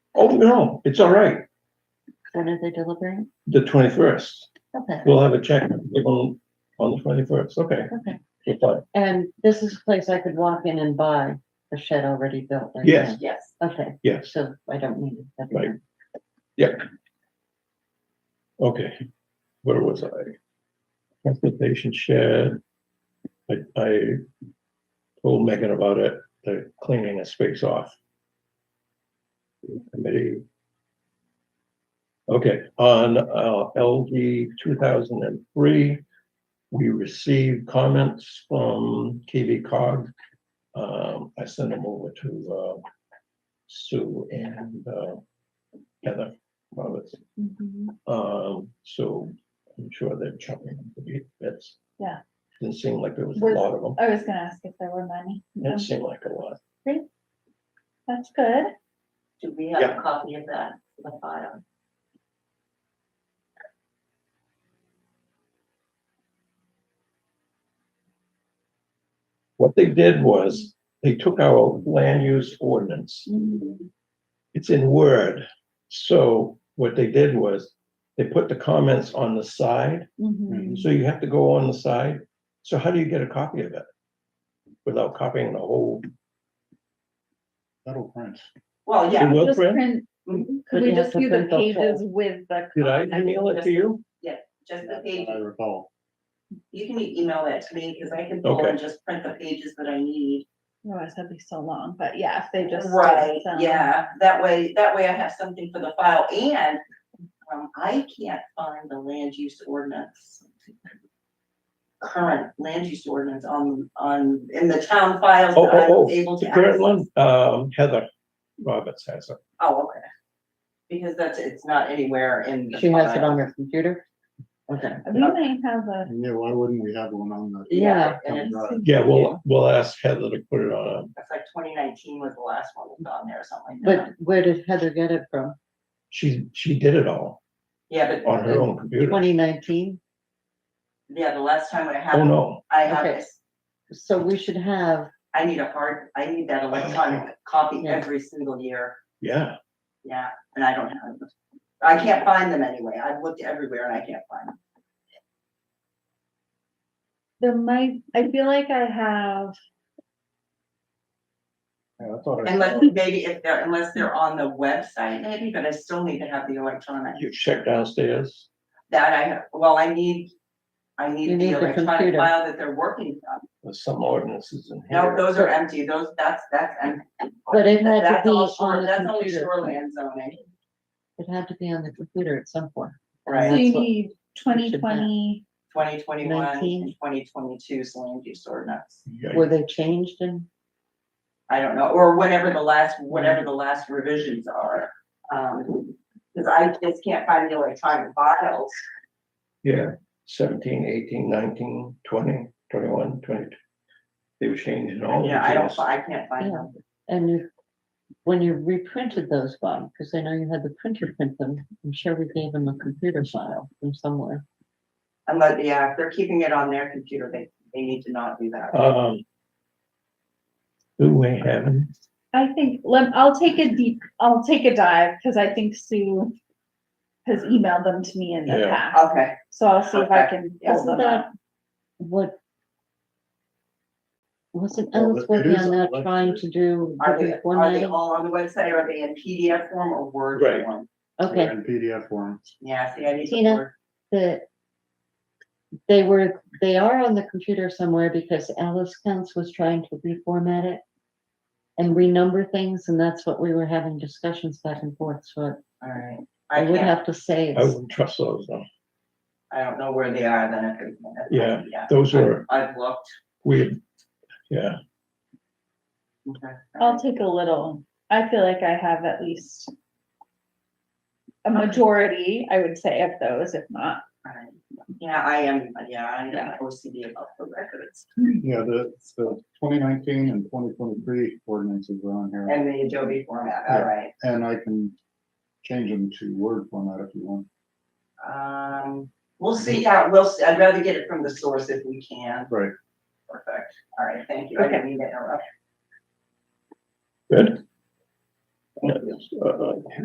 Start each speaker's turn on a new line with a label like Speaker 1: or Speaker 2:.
Speaker 1: Oh, no, it's all right,
Speaker 2: When are they delivering?
Speaker 1: the twenty-first.
Speaker 2: Okay,
Speaker 1: We'll have a check give them on the twenty-first, okay.
Speaker 2: okay.
Speaker 1: we're fine.
Speaker 2: And this is a place I could walk in and buy a shed already built. I
Speaker 1: Yes.
Speaker 2: think. Okay,
Speaker 1: Yes,
Speaker 2: so I don't need it. That'd be
Speaker 1: Right.
Speaker 2: nice.
Speaker 1: okay. Where was I? Transportation shed. I, I told Megan about it, the cleaning a space off. Committee. Okay, on uh, LD two thousand and three, we received comments from KV cog. Um, I sent them over to, uh, Sue and, uh, Heather Roberts.
Speaker 3: Mm-hmm.
Speaker 1: Um, so I'm sure they're chopping the beat bits.
Speaker 4: Yeah.
Speaker 1: Didn't seem like there was a
Speaker 4: Was-
Speaker 1: lot of them.
Speaker 4: I was gonna ask if there were money.
Speaker 1: Didn't seem like a lot.
Speaker 4: That's good.
Speaker 2: Do we have
Speaker 1: Yeah.
Speaker 2: a copy of that, the file?
Speaker 1: What they did was they took our land use ordinance.
Speaker 3: Mm-hmm.
Speaker 1: It's in Word. So what they did was they put the comments on the side.
Speaker 3: Hmm.
Speaker 1: So you have to go on the side. So how do you get a copy of it? Without copying the whole,
Speaker 5: That'll print.
Speaker 3: Well,
Speaker 1: it
Speaker 3: yeah,
Speaker 1: will
Speaker 4: Just
Speaker 1: print? Mm-hmm.
Speaker 4: print- Could
Speaker 2: But
Speaker 4: we
Speaker 2: you have
Speaker 4: just
Speaker 2: to
Speaker 4: do the
Speaker 2: print the whole-
Speaker 4: pages with the?
Speaker 1: Did I email it to you?
Speaker 3: just the
Speaker 5: That's
Speaker 3: page,
Speaker 5: what I recall.
Speaker 3: you can email that to me, because I can pull and just print the pages that I need.
Speaker 4: Otherwise, that'd be so long, but yeah, if they just. um, did
Speaker 3: Right,
Speaker 4: some-
Speaker 3: yeah, that way, that way I have something for the file, and, um, I can't find the land use ordinance. Current land use ordinance on, on, in the town files
Speaker 1: Oh,
Speaker 3: that I
Speaker 1: oh,
Speaker 3: was
Speaker 1: oh,
Speaker 3: able to
Speaker 1: the
Speaker 3: access.
Speaker 1: current one, um, Heather Roberts has it.
Speaker 3: Oh, okay. Because that's, it's not anywhere in. the
Speaker 2: She has it
Speaker 3: file.
Speaker 2: on her computer? Okay.
Speaker 4: We may have a,
Speaker 5: And Yeah, why wouldn't we have one on the?
Speaker 2: Yeah,
Speaker 5: town
Speaker 3: and it's-
Speaker 5: drive?
Speaker 1: Yeah, we'll, we'll ask Heather to put it on.
Speaker 3: That's like twenty nineteen was the last one that's on there or something like that.
Speaker 2: But where did Heather get it from?
Speaker 1: She, she did it all
Speaker 3: Yeah, but,
Speaker 1: on her own computer.
Speaker 2: Twenty nineteen?
Speaker 3: yeah, the last time I had.
Speaker 1: Oh, no.
Speaker 3: I have
Speaker 2: Okay.
Speaker 3: this,
Speaker 2: So we should have,
Speaker 3: I need a hard, I need that electronic copy
Speaker 2: Yeah.
Speaker 3: every single year,
Speaker 1: Yeah,
Speaker 3: yeah, and I don't have them. I can't find them anyway, I've looked everywhere and I can't find them.
Speaker 4: there might, I feel like I have,
Speaker 5: Yeah, I thought I
Speaker 3: Unless,
Speaker 5: saw-
Speaker 3: maybe if they're, unless they're on the website maybe, but I still need to have the electronic.
Speaker 1: you check downstairs.
Speaker 3: That I, have. well, I need, I
Speaker 2: You
Speaker 3: need
Speaker 2: need
Speaker 3: the
Speaker 2: the
Speaker 3: electronic
Speaker 2: computer.
Speaker 3: file that they're working on.
Speaker 1: There's some ordinances in
Speaker 3: No,
Speaker 1: here.
Speaker 3: those are empty, those, that's, that's empty.
Speaker 2: But it had to
Speaker 3: That's all
Speaker 2: be
Speaker 3: shore-
Speaker 2: on the
Speaker 3: That's only
Speaker 2: computer.
Speaker 3: shoreland zoning,
Speaker 2: it had to be on the computer at some point.
Speaker 4: so
Speaker 3: right,
Speaker 2: Right.
Speaker 4: you
Speaker 2: That's what-
Speaker 4: need twenty twenty,
Speaker 3: twenty twenty-one
Speaker 2: 19.
Speaker 3: and twenty twenty-two's land use ordinance.
Speaker 1: Yeah,
Speaker 2: Were they changed and?
Speaker 3: I don't know, or whatever the last, whatever the last revisions are. Um, cause I just can't find the electronic files.
Speaker 1: Yeah, seventeen, eighteen, nineteen, twenty, twenty-one, twenty-two. They were changing all
Speaker 3: Yeah, I don't,
Speaker 1: the
Speaker 3: fi- I can't find them.
Speaker 2: And you, when you reprinted those ones, because I know you had the printer print them, I'm sure we gave them a computer file from somewhere.
Speaker 3: Unless, yeah, if they're keeping it on their computer, they, they need to not do that.
Speaker 1: Um. Do we have,
Speaker 4: I think, let, I'll take a deep, I'll take a dive, cause I think Sue has emailed them to me in the
Speaker 1: Yeah.
Speaker 4: past,
Speaker 3: Okay,
Speaker 4: so I'll see if I
Speaker 3: Okay.
Speaker 4: can pull them up.
Speaker 2: What? Wasn't
Speaker 5: Well,
Speaker 2: Alice
Speaker 5: it
Speaker 2: working
Speaker 5: is
Speaker 2: on that,
Speaker 5: on
Speaker 2: trying
Speaker 5: website.
Speaker 2: to do
Speaker 3: are
Speaker 2: the
Speaker 3: they,
Speaker 2: one
Speaker 3: are they
Speaker 2: item?
Speaker 3: all on the website? Are they in PDF form or Word
Speaker 1: Right.
Speaker 3: form?
Speaker 2: Okay.
Speaker 5: In PDF form.
Speaker 3: Yeah, see, I need to
Speaker 2: Tina?
Speaker 3: Word.
Speaker 2: that they were, they are on the computer somewhere because Alice Kuntz was trying to reformat it and renumber things, and that's what we were having discussions back and forth, so
Speaker 3: All right.
Speaker 2: I
Speaker 3: I
Speaker 2: would
Speaker 3: can't,
Speaker 2: have to say,
Speaker 1: I
Speaker 2: it's-
Speaker 1: wouldn't trust those though.
Speaker 3: I don't know where they are then. if it- if it-
Speaker 1: Yeah, Those were
Speaker 3: I've looked.
Speaker 1: weird. Yeah,
Speaker 3: Okay.
Speaker 2: Oh,
Speaker 4: I'll take a little, I feel like I have at least a majority, I would say, of those, if not.
Speaker 3: Alright. Yeah, I am, yeah, I am
Speaker 4: Yeah.
Speaker 3: OCD about the records
Speaker 5: Yeah, the, the twenty nineteen and twenty twenty-three ordinances are on here,
Speaker 3: and the Adobe format,
Speaker 5: Yeah.
Speaker 3: alright.
Speaker 5: and I can change them to Word format if you want.
Speaker 3: Um, we'll see, yeah, we'll, see. I'd rather get it from the source if we can.
Speaker 5: Right.
Speaker 3: Perfect, all right, thank you, I didn't mean to interrupt.
Speaker 1: good.
Speaker 3: Thank you.
Speaker 1: Uh,